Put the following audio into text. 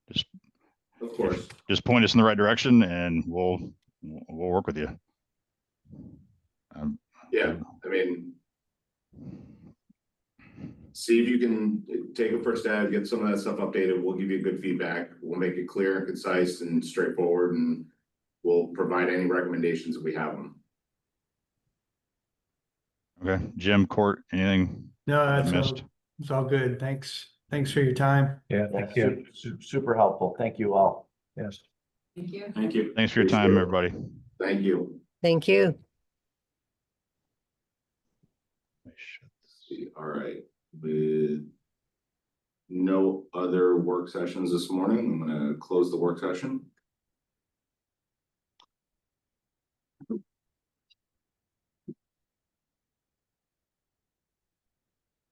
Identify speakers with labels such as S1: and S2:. S1: Of course.
S2: Just point us in the right direction and we'll, we'll work with you. Um,
S1: Yeah, I mean. See if you can take a first stab, get some of that stuff updated. We'll give you good feedback. We'll make it clear and concise and straightforward and. We'll provide any recommendations if we have them.
S2: Okay, Jim, Court, anything
S3: No,
S2: I
S3: that's all,
S2: missed?
S3: it's all good. Thanks. Thanks for your time.
S4: Yeah, thank you. Super helpful. Thank you all. Yes.
S5: Thank you.
S1: Thank you.
S2: Thanks for your time, everybody.
S1: Thank you.
S6: Thank you.
S1: See, All right, with. No other work sessions this morning. I'm gonna close the work session.